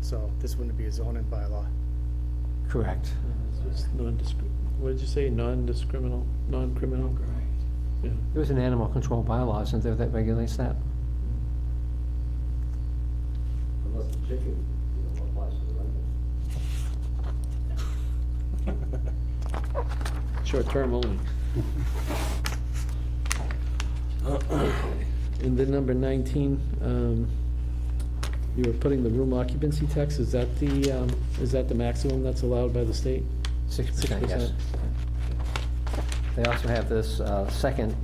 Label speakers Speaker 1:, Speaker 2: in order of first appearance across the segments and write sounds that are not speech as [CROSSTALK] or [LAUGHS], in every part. Speaker 1: so this wouldn't be a zoning bylaw.
Speaker 2: Correct.
Speaker 3: It's non-discrim, what did you say, non-discriminal, non-criminal? Yeah.
Speaker 2: There was an animal control bylaw, isn't there, that regulates that?
Speaker 4: Unless the chicken, you know, applies to the rental.
Speaker 3: Short-term only. And then number 19, um, you were putting the room occupancy tax, is that the, um, is that the maximum that's allowed by the state?
Speaker 2: Six percent, yes.
Speaker 3: 6%.
Speaker 2: They also have this uh, second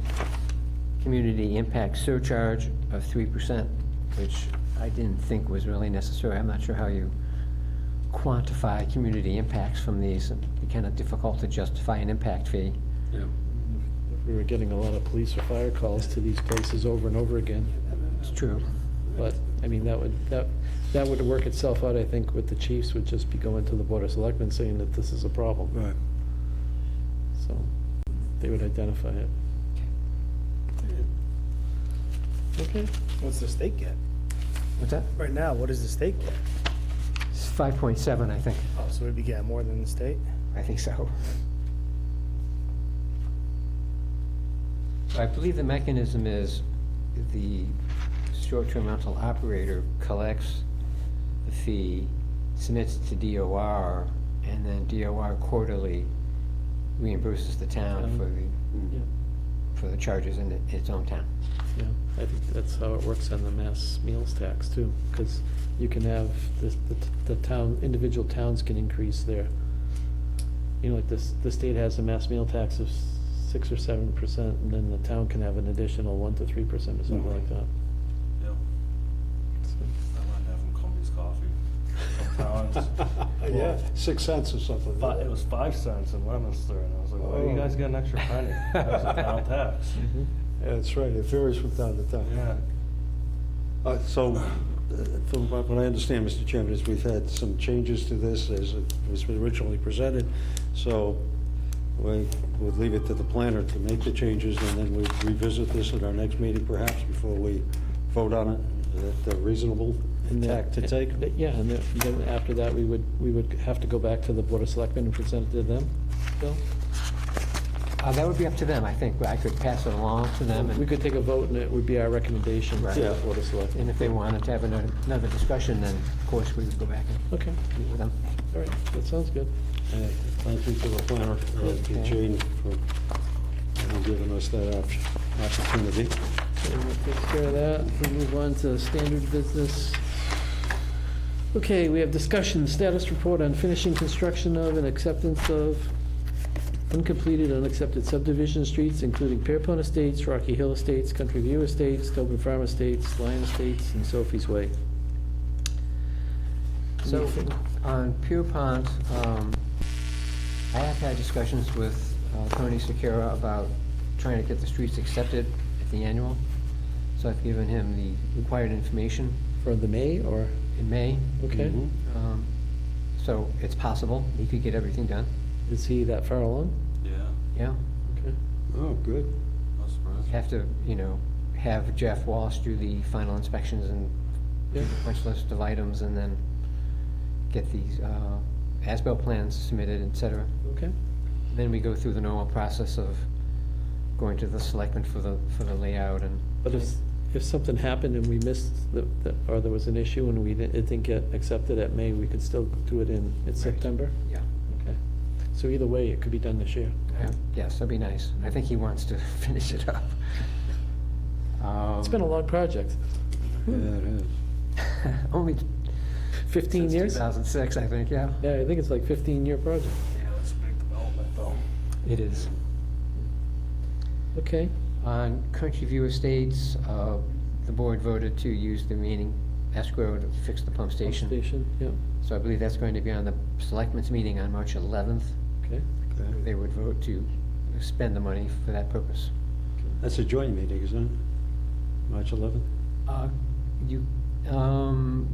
Speaker 2: community impact surcharge of three percent, which I didn't think was really necessary. I'm not sure how you quantify community impacts from these. It'd be kind of difficult to justify an impact fee.
Speaker 3: Yeah. We were getting a lot of police or fire calls to these places over and over again,
Speaker 2: It's true.
Speaker 3: but, I mean, that would, that, that would work itself out, I think, with the chiefs, would just be going to the Board of Selectmen saying that this is a problem.
Speaker 5: Right.
Speaker 3: So they would identify it. Okay.
Speaker 1: What's the state get?
Speaker 2: What's that?
Speaker 1: Right now, what does the state get?
Speaker 2: It's five point seven, I think.
Speaker 1: Oh, so we'd be getting more than the state?
Speaker 2: I think so. I believe the mechanism is the short-term rental operator collects the fee, submits it to DOR, and then DOR quarterly reimburses the town for
Speaker 3: Yeah,
Speaker 2: the, for the charges in it- its own town.
Speaker 3: yeah. I think that's how it works on the mass meals tax too, because you can have, the, the- the town, individual towns can increase their, you know, like this, the state has a mass meal tax of six or seven percent, and then the town can have an additional one to three percent or something like that.
Speaker 6: Yep,
Speaker 3: So,
Speaker 6: I might have him Columbus coffee.
Speaker 1: [LAUGHS]
Speaker 5: Yeah, six cents or something.
Speaker 6: But it was five cents in Leominster, and I was like, why do you guys get an extra penny? That was [LAUGHS] a town tax.
Speaker 3: mhm.
Speaker 5: Yeah, That's right, it varies from town to town.
Speaker 6: Yeah.
Speaker 5: Uh, So, uh, from what what I understand, Mr. Chairman, is we've had some changes to this as it was originally presented, so we would leave it to the planner to make the changes, and then we revisit this at our next meeting perhaps before we vote on it. Is that a reasonable
Speaker 3: And then-
Speaker 5: tack to take?
Speaker 3: and- Yeah, and then, then after that, we would, we would have to go back to the Board of Selectmen and present it to them, Bill?
Speaker 2: Uh, that would be up to them, I think, but I could pass it along to them,
Speaker 3: We
Speaker 2: and,
Speaker 3: could take a vote and it would be our recommendation to the
Speaker 5: Right.
Speaker 3: Board of Selectmen.
Speaker 2: and if they wanted to have another, another discussion, then of course we would go back and
Speaker 3: Okay,
Speaker 2: meet with them.
Speaker 3: all right, that sounds good.
Speaker 5: Uh, Thank you to the planner, uh, to Jane, for uh, giving us that op- opportunity.
Speaker 3: Okay, we'll take care of that. We move on to standard business. Okay, we have discussion, status report on finishing construction of and acceptance of uncompleted, unaccepted subdivision streets, including Pierpont Estates, Rocky Hill Estates, Country View Estates, Tobin Farm Estates, Lyon Estates, and Sophie's Way.
Speaker 2: So,
Speaker 3: Anything?
Speaker 2: on Pierpont, um, I have had discussions with uh, Tony Secura about trying to get the streets accepted at the annual. So I've given him the required information
Speaker 3: For the May or, Mm-hmm.
Speaker 2: in May.
Speaker 3: okay,
Speaker 5: Mhm.
Speaker 2: Um, So it's possible, he could get everything done,
Speaker 3: is he that far along?
Speaker 6: Yeah,
Speaker 2: yeah.
Speaker 3: Okay.
Speaker 5: Oh, good.
Speaker 6: no surprise.
Speaker 2: You Have to, you know, have Jeff Walsh do the final inspections and do
Speaker 3: Yeah.
Speaker 2: a punch list of items, and then get these uh, as-built plans submitted, et cetera.
Speaker 3: Okay,
Speaker 2: Then we go through the normal process of going to the selectmen for the, for the layout and.
Speaker 3: but if, if something happened and we missed, the the- or there was an issue and we didn't, it didn't get accepted at May, we could still do it in, in September?
Speaker 2: Yeah.
Speaker 3: Okay, so either way, it could be done this year.
Speaker 2: Yeah, Yes, that'd be nice. I think he wants to [LAUGHS] finish it up. Um,
Speaker 3: It's been a long project,
Speaker 5: Yeah, it is.
Speaker 2: [LAUGHS] Only.
Speaker 3: fifteen years?
Speaker 2: Two thousand six, I think, yeah.
Speaker 3: Yeah, I think it's like fifteen-year project.
Speaker 6: Yeah, that's a big development though.
Speaker 2: It is.
Speaker 3: Okay,
Speaker 2: On Country View Estates, uh, the board voted to use the remaining escrow to fix the pump
Speaker 3: pump
Speaker 2: station.
Speaker 3: station, yeah,
Speaker 2: So I believe that's going to be on the selectmen's meeting on March eleventh.
Speaker 3: okay.
Speaker 5: Okay.
Speaker 2: They would vote to spend the money for that purpose.
Speaker 5: That's a joint meeting, isn't it? March 11th?
Speaker 2: Uh, You, um,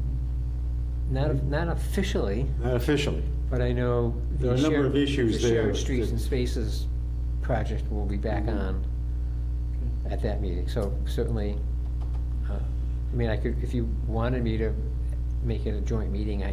Speaker 2: not, not officially,
Speaker 5: Not officially.
Speaker 2: but I know. the
Speaker 5: There are a number
Speaker 2: shared-
Speaker 5: of issues
Speaker 2: The
Speaker 5: there
Speaker 2: Shared Streets
Speaker 5: that- Mm-hmm.
Speaker 2: and Spaces project will be back on at that meeting, so certainly, uh, I mean, I could, if you wanted me to make it a joint meeting, I